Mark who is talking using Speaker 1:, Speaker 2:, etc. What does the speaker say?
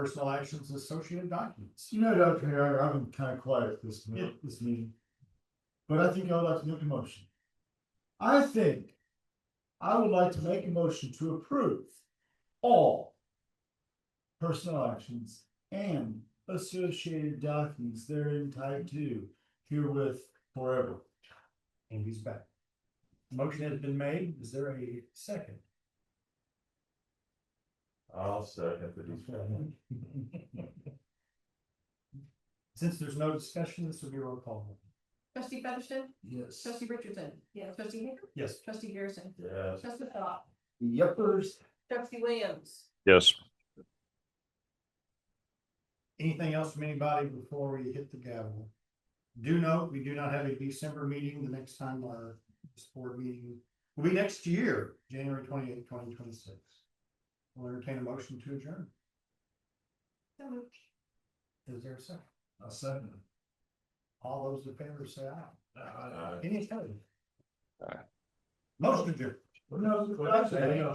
Speaker 1: personal actions and associated documents.
Speaker 2: You know, Dr. Mayor, I've been kind of quiet this,
Speaker 1: Yeah.
Speaker 2: minute- this meeting. But I think I would like to make a motion. I think I would like to make a motion to approve all personal actions and associated documents therein tied to herewith forever.
Speaker 1: And he's back. Motion has been made. Is there a second?
Speaker 3: I'll second the
Speaker 1: Since there's no discussion, this will be a roll call. vote.
Speaker 4: Trustee Featherston,
Speaker 2: Yes.
Speaker 4: trustee Richardson. Yeah. Trustee Hager,
Speaker 1: Yes.
Speaker 4: trustee Garrison,
Speaker 3: Yes.
Speaker 4: trustee Philip,
Speaker 2: Yuppers.
Speaker 4: trustee Williams.
Speaker 5: Yes.
Speaker 1: Anything else from anybody before we hit the gavel? Do note, we do not have a December meeting. The next time our this board meeting will be next year, January twenty eighth, twenty twenty six. We'll entertain a motion to adjourn.
Speaker 4: So moved.
Speaker 1: Is there a second?
Speaker 2: A second.
Speaker 1: All those in favor say aye.
Speaker 3: Aye.
Speaker 1: Any opposed?
Speaker 5: Aye.
Speaker 1: Motion adjourned.
Speaker 2: Well, no, I said,